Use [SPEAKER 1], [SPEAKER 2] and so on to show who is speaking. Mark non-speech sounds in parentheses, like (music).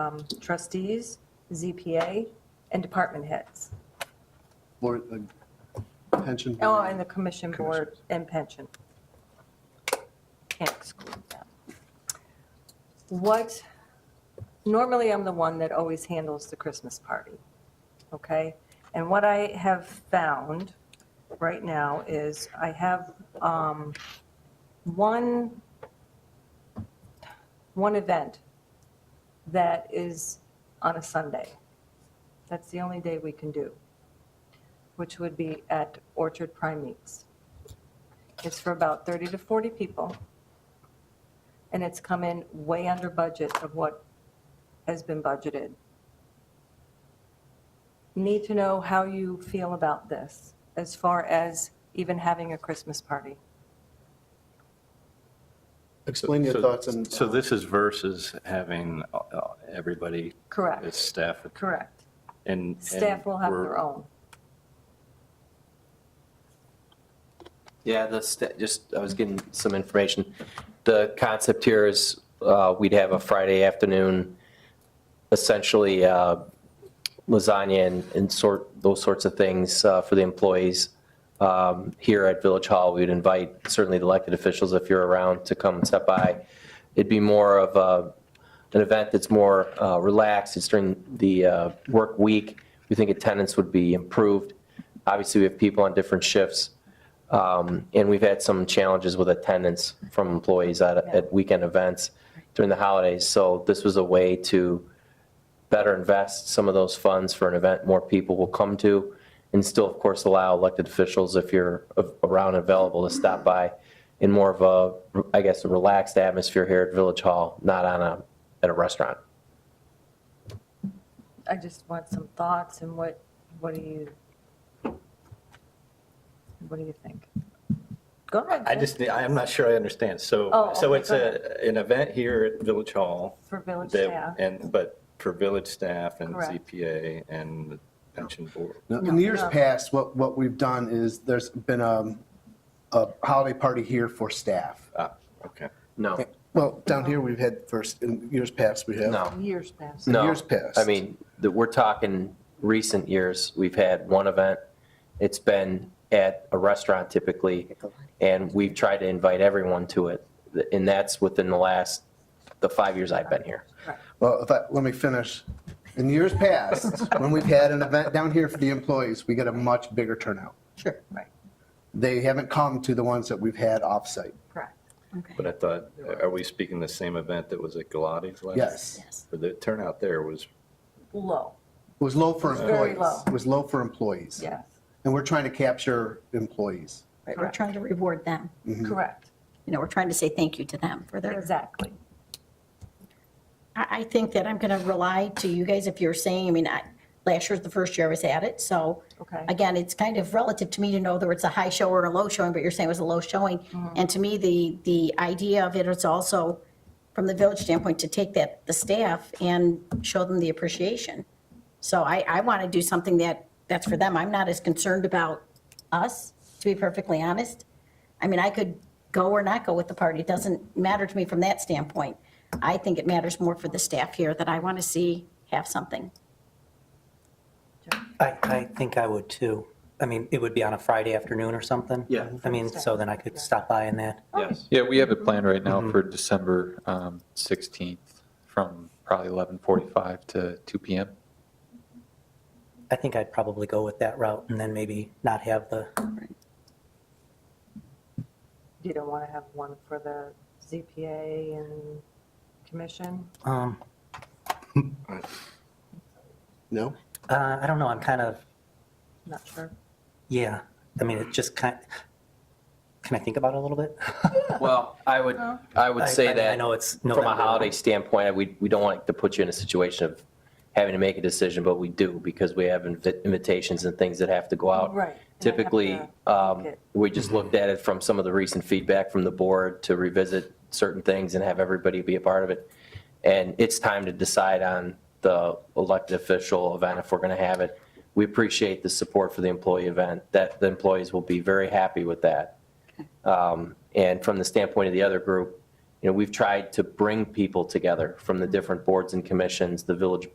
[SPEAKER 1] um, trustees, ZPA, and department heads.
[SPEAKER 2] Board, uh, pension.
[SPEAKER 1] Oh,
[SPEAKER 2] board.
[SPEAKER 1] and the commission board and pension. Can't exclude that. What, normally I'm the one that always handles the Christmas party, okay? And what I have found right now is I have um, one, one event that is on a Sunday. That's the only day we can do which would be at Orchard Prime Meats. It's for about 30 to 40 people, and it's come in way under budget of what has been budgeted. Need to know how you feel about this, as far as even having a Christmas party.
[SPEAKER 2] Explain your
[SPEAKER 3] So-
[SPEAKER 2] thoughts and. uh,
[SPEAKER 3] So this is versus having uh, uh, everybody as
[SPEAKER 1] Correct,
[SPEAKER 3] staff
[SPEAKER 1] correct.
[SPEAKER 3] and. and
[SPEAKER 1] Staff will have
[SPEAKER 3] we're-
[SPEAKER 1] their own.
[SPEAKER 4] Yeah, the, sta- just, I was getting some information. The concept here is uh, we'd have a Friday afternoon, essentially uh, lasagna and- and sort, those sorts of things uh, for the employees. Um, Here at Village Hall, we'd invite certainly the elected officials, if you're around, to come and step by. It'd be more of a, an event that's more uh, relaxed, it's during the uh, work week. We think attendance would be improved. Obviously, we have people on different shifts. Um, And we've had some challenges with attendance from employees at, at weekend events during the holidays. So this was a way to better invest some of those funds for an event more people will come to, and still, of course, allow elected officials, if you're a- around and available, to stop by in more of a, I guess, a relaxed atmosphere here at Village Hall, not on a, at a restaurant.
[SPEAKER 1] I just want some thoughts and what, what do you, what do you think? Go ahead.
[SPEAKER 3] I
[SPEAKER 1] Jen.
[SPEAKER 3] just, I'm not sure I understand. So,
[SPEAKER 1] Oh,
[SPEAKER 3] so
[SPEAKER 1] okay,
[SPEAKER 3] it's
[SPEAKER 1] go
[SPEAKER 3] a, an event here at Village Hall.
[SPEAKER 1] For village
[SPEAKER 3] that-
[SPEAKER 1] staff.
[SPEAKER 3] And, but for village staff and
[SPEAKER 1] Correct.
[SPEAKER 3] ZPA and the pension board.
[SPEAKER 2] Now, In the years
[SPEAKER 1] No.
[SPEAKER 2] past, what, what we've done is there's been um, a holiday party here for staff.
[SPEAKER 3] Ah, okay.
[SPEAKER 4] No,
[SPEAKER 3] Oh.
[SPEAKER 2] Well, down here, we've had first, in years past, we have.
[SPEAKER 4] no.
[SPEAKER 1] Years past.
[SPEAKER 2] In
[SPEAKER 4] No.
[SPEAKER 2] years past.
[SPEAKER 4] I mean, the- we're talking recent years, we've had one event. It's been at a restaurant typically, and we've tried to invite everyone to it. And that's within the last, the five years I've been here.
[SPEAKER 2] Well, if I, let me finish. In years past,
[SPEAKER 3] (laughs)
[SPEAKER 2] when we've had an event down here for the employees, we get a much bigger turnout.
[SPEAKER 1] Sure, right,
[SPEAKER 2] They haven't come to the ones that we've had offsite.
[SPEAKER 1] correct.
[SPEAKER 3] But I thought, are we speaking the same event that was at Galati's last?
[SPEAKER 2] Yes.
[SPEAKER 3] The turnout there was,
[SPEAKER 1] Low,
[SPEAKER 2] It was low for
[SPEAKER 1] It was very
[SPEAKER 2] employees.
[SPEAKER 1] low.
[SPEAKER 2] It was low for employees.
[SPEAKER 1] yes,
[SPEAKER 2] And we're trying to capture employees.
[SPEAKER 5] Right, we're
[SPEAKER 1] Correct.
[SPEAKER 5] trying to reward them.
[SPEAKER 4] Mm-hmm.
[SPEAKER 1] correct,
[SPEAKER 5] You know, we're trying to say thank you to them for their,
[SPEAKER 1] exactly.
[SPEAKER 5] I, I think that I'm going to rely to you guys if you're saying, I mean, I, last year's the first year I was at it, so.
[SPEAKER 1] Okay.
[SPEAKER 5] Again, it's kind of relative to me to know whether it's a high show or a low showing, but you're saying it was a low showing.
[SPEAKER 1] Mm-hmm.
[SPEAKER 5] And to me, the, the idea of it is also, from the village standpoint, to take that, the staff and show them the appreciation. So I, I want to do something that, that's for them. I'm not as concerned about us, to be perfectly honest. I mean, I could go or not go with the party. It doesn't matter to me from that standpoint. I think it matters more for the staff here that I want to see have something.
[SPEAKER 6] I, I think I would too. I mean, it would be on a Friday afternoon or something.
[SPEAKER 4] Yeah.
[SPEAKER 6] I mean, so then I could stop by and that.
[SPEAKER 1] Oh,
[SPEAKER 4] Yes.
[SPEAKER 7] Yeah, we have it planned right now for December um, 16th from probably 11:45 to 2 PM.
[SPEAKER 6] I think I'd probably go with that route and then maybe not have the,
[SPEAKER 1] You don't want to have one for the ZPA and commission?
[SPEAKER 6] um,
[SPEAKER 2] No?
[SPEAKER 6] uh, I don't know, I'm kind of,
[SPEAKER 1] Not sure.
[SPEAKER 6] yeah. I mean, it just kind, can I think about it a little bit?
[SPEAKER 4] Well, I would, I would
[SPEAKER 6] (laughs) I- I
[SPEAKER 4] say
[SPEAKER 6] mean,
[SPEAKER 4] that.
[SPEAKER 6] I know it's
[SPEAKER 4] From a
[SPEAKER 6] November.
[SPEAKER 4] holiday standpoint, we, we don't want to put you in a situation of having to make a decision, but we do because we have invi- invitations and things that have to go out.
[SPEAKER 1] Right.
[SPEAKER 4] Typically,
[SPEAKER 1] And I have to
[SPEAKER 4] um,
[SPEAKER 1] look at-
[SPEAKER 4] we just looked at it from some of the recent feedback from the board to revisit certain things and have everybody be a part of it. And it's time to decide on the elected official event if we're going to have it. We appreciate the support for the employee event, that the employees will be very happy with that. Um, And from the standpoint of the other group, you know, we've tried to bring people together from the different boards and commissions, the village